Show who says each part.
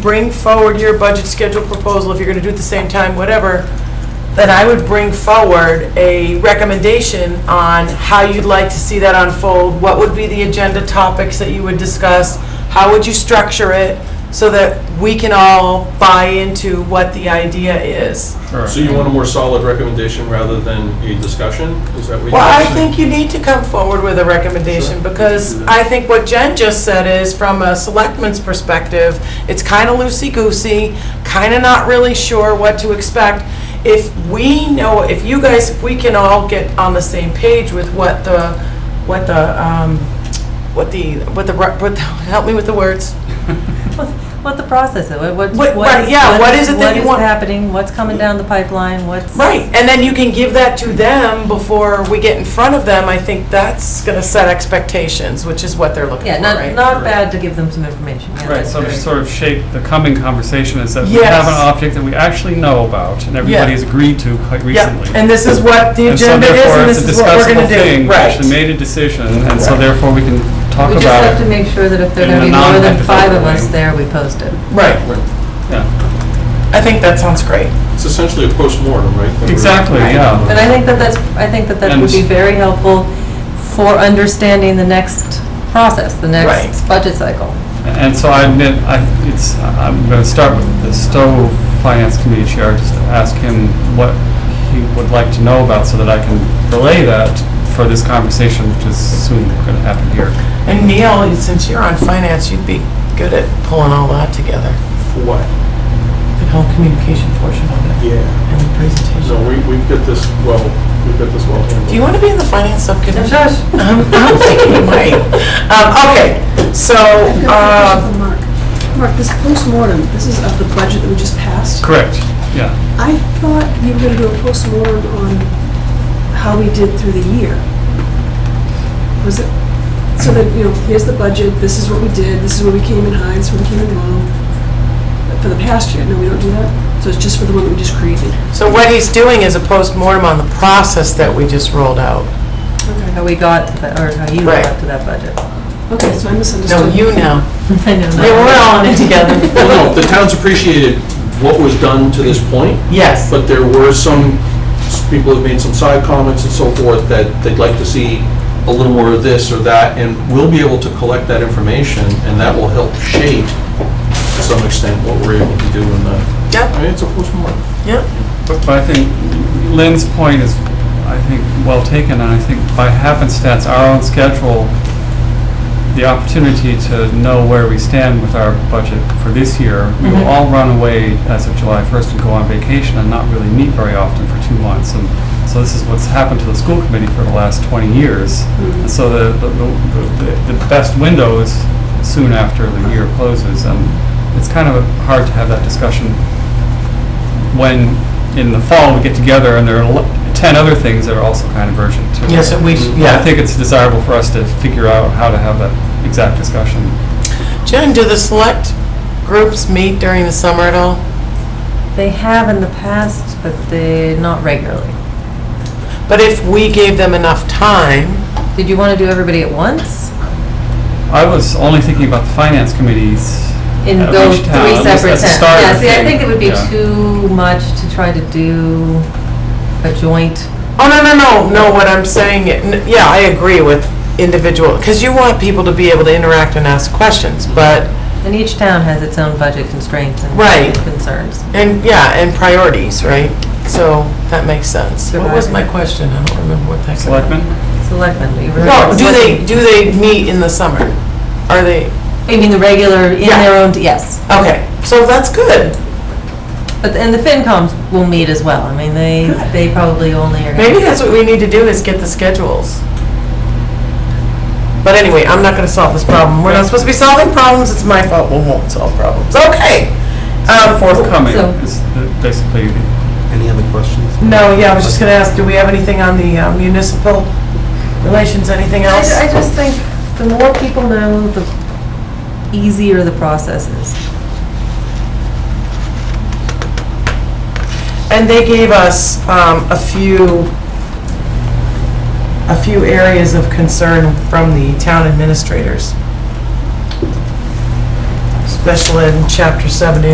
Speaker 1: bring forward your budget schedule proposal, if you're going to do it at the same time, whatever, then I would bring forward a recommendation on how you'd like to see that unfold, what would be the agenda topics that you would discuss, how would you structure it, so that we can all buy into what the idea is.
Speaker 2: So you want a more solid recommendation rather than a discussion? Is that what you?
Speaker 1: Well, I think you need to come forward with a recommendation,
Speaker 2: Sure.
Speaker 1: because I think what Jen just said is, from a selectman's perspective, it's kind of loosey-goosey, kind of not really sure what to expect. If we know, if you guys, if we can all get on the same page with what the, what the, um, what the, what the, re- what the- help me with the words.
Speaker 3: What the process is, what, what.
Speaker 1: What-
Speaker 3: what
Speaker 1: right,
Speaker 3: is-
Speaker 1: yeah, what is it that you want?
Speaker 3: What is happening, what's coming down the pipeline, what's.
Speaker 1: Right, and then you can give that to them before we get in front of them. I think that's going to set expectations, which is what they're looking for,
Speaker 3: Yeah,
Speaker 1: right?
Speaker 3: not, not bad to give them some information, yeah.
Speaker 4: Right,
Speaker 3: that's
Speaker 4: so to
Speaker 3: great.
Speaker 4: sort of shape the coming conversation is that we
Speaker 1: Yes.
Speaker 4: have an object that we actually know about and everybody's agreed to quite recently.
Speaker 1: Yep, and this is what the
Speaker 4: And so
Speaker 1: agenda is,
Speaker 4: therefore,
Speaker 1: and
Speaker 4: it's
Speaker 1: this
Speaker 4: a
Speaker 1: is what we're
Speaker 4: discussable
Speaker 1: gonna
Speaker 4: thing.
Speaker 1: do.
Speaker 4: We actually
Speaker 1: Right.
Speaker 4: made a decision, and so therefore we can talk
Speaker 3: We just have
Speaker 4: about
Speaker 3: to
Speaker 4: it.
Speaker 3: make sure that if there are
Speaker 4: in
Speaker 3: gonna
Speaker 4: a
Speaker 3: be more than five of
Speaker 4: non-hypothetical
Speaker 3: us
Speaker 4: way.
Speaker 3: there, we post it.
Speaker 1: Right,
Speaker 4: Yeah.
Speaker 1: I think that sounds great.
Speaker 2: It's essentially a postmortem, right? that we're-
Speaker 4: Exactly,
Speaker 1: Right.
Speaker 4: yeah.
Speaker 3: But I think that that's, I think that that
Speaker 4: And
Speaker 3: would be
Speaker 4: s-
Speaker 3: very helpful for understanding the next process, the next
Speaker 1: Right.
Speaker 3: budget cycle.
Speaker 4: And so I admit, I, it's, I'm gonna start with the Stowe Finance Committee Chair, just to ask him what he would like to know about so that I can relay that for this conversation, which is soon gonna happen here.
Speaker 1: And Neil, since you're on finance, you'd be good at pulling all that together,
Speaker 2: For what?
Speaker 1: the whole communication portion of it,
Speaker 2: Yeah.
Speaker 1: and the
Speaker 2: So
Speaker 1: presentation.
Speaker 2: we, we've got this well, we've got this well handled.
Speaker 1: Do you want to be in the finance subcommittee?
Speaker 3: Shush.
Speaker 1: I'm I'm thinking you might. Um, Okay, so,
Speaker 5: I've got a question
Speaker 1: um,
Speaker 5: for Mark. Mark, this postmortem, this is of the budget that we just passed.
Speaker 4: Correct, yeah.
Speaker 5: I thought you were going to do a postmortem on how we did through the year. Was it, so that, you know, here's the budget, this is what we did, this is where we came in high, this is where we came in low. But For the past year, no, we don't do that? So it's just for the one that we just created?
Speaker 1: so what he's doing is a postmortem on the process that we just rolled out.
Speaker 3: How we got to that, or how you
Speaker 1: Right.
Speaker 3: got to that budget.
Speaker 5: Okay, so I
Speaker 1: No,
Speaker 5: misunderstood.
Speaker 1: you now.
Speaker 3: I know.
Speaker 1: Yeah, we're all in it together.
Speaker 2: Well, no, the town's appreciated what was done to this point,
Speaker 1: Yes,
Speaker 2: but there were some, s- people have made some side comments and so forth that they'd like to see a little more of this or that, and we'll be able to collect that information, and that will help shape to some extent what we're able to do in the, I
Speaker 1: yep,
Speaker 2: mean, it's a postmortem.
Speaker 1: yep.
Speaker 4: But but I think Lynn's point is, I think, well taken, and I think by happenstance, our own schedule, the opportunity to know where we stand with our budget for this year, we will all run away as of July 1st and go on vacation and not really meet very often for two months. And so this is what's happened to the school committee for the last 20 years. And so the, the- the, the best window is soon after the year closes, and it's kind of hard to have that discussion when in the fall we get together and there are lo- 10 other things that are also kind of urgent too.
Speaker 1: Yes, and we, yeah.
Speaker 4: I think it's desirable for us to figure out how to have that exact discussion.
Speaker 1: Jen, do the select groups meet during the summer at all?
Speaker 3: They have in the past, but they, not regularly.
Speaker 1: But if we gave them enough time,
Speaker 3: Did you want to do everybody at once?
Speaker 4: I was only thinking about the finance committees.
Speaker 3: In
Speaker 4: of
Speaker 3: go
Speaker 4: each town,
Speaker 3: three
Speaker 4: at least
Speaker 3: separate
Speaker 4: as a
Speaker 3: towns?
Speaker 4: starter
Speaker 3: Yeah, see, I
Speaker 4: thing.
Speaker 3: think it would be
Speaker 4: Yeah.
Speaker 3: too much to try to do a joint.
Speaker 1: oh, no, no, no, no, what I'm saying, n- yeah, I agree with individual, because you want people to be able to interact and ask questions, but,
Speaker 3: And each town has its own budget constraints and
Speaker 1: Right.
Speaker 3: concerns.
Speaker 1: and, yeah, and priorities, right? So, that makes sense. What was my question? I don't remember what that.
Speaker 4: Selectmen?
Speaker 3: Selectmen, do you remember?
Speaker 1: No, Oh, do they,
Speaker 3: selectmen-
Speaker 1: do they meet in the summer? Are they,
Speaker 3: I mean, the regular, in
Speaker 1: Yeah.
Speaker 3: their own, yes.
Speaker 1: okay, so that's good.
Speaker 3: But, and the FinComs will meet as well. I mean, they, they probably only are. gonna-
Speaker 1: Maybe that's what we need to do is get the schedules. But anyway, I'm not gonna solve this problem. We're not supposed to be solving problems, it's my fault, we won't solve problems. Okay. Um,
Speaker 4: Forthcoming
Speaker 3: So-
Speaker 4: is the- basically the
Speaker 6: Any other questions?
Speaker 1: No, yeah, I was just gonna ask, do we have anything on the uh, municipal relations, anything
Speaker 3: I,
Speaker 1: else?
Speaker 3: I just think the more people know, the easier the process is.
Speaker 1: And they gave us um, a few, a few areas of concern from the town administrators. special ed in chapter 70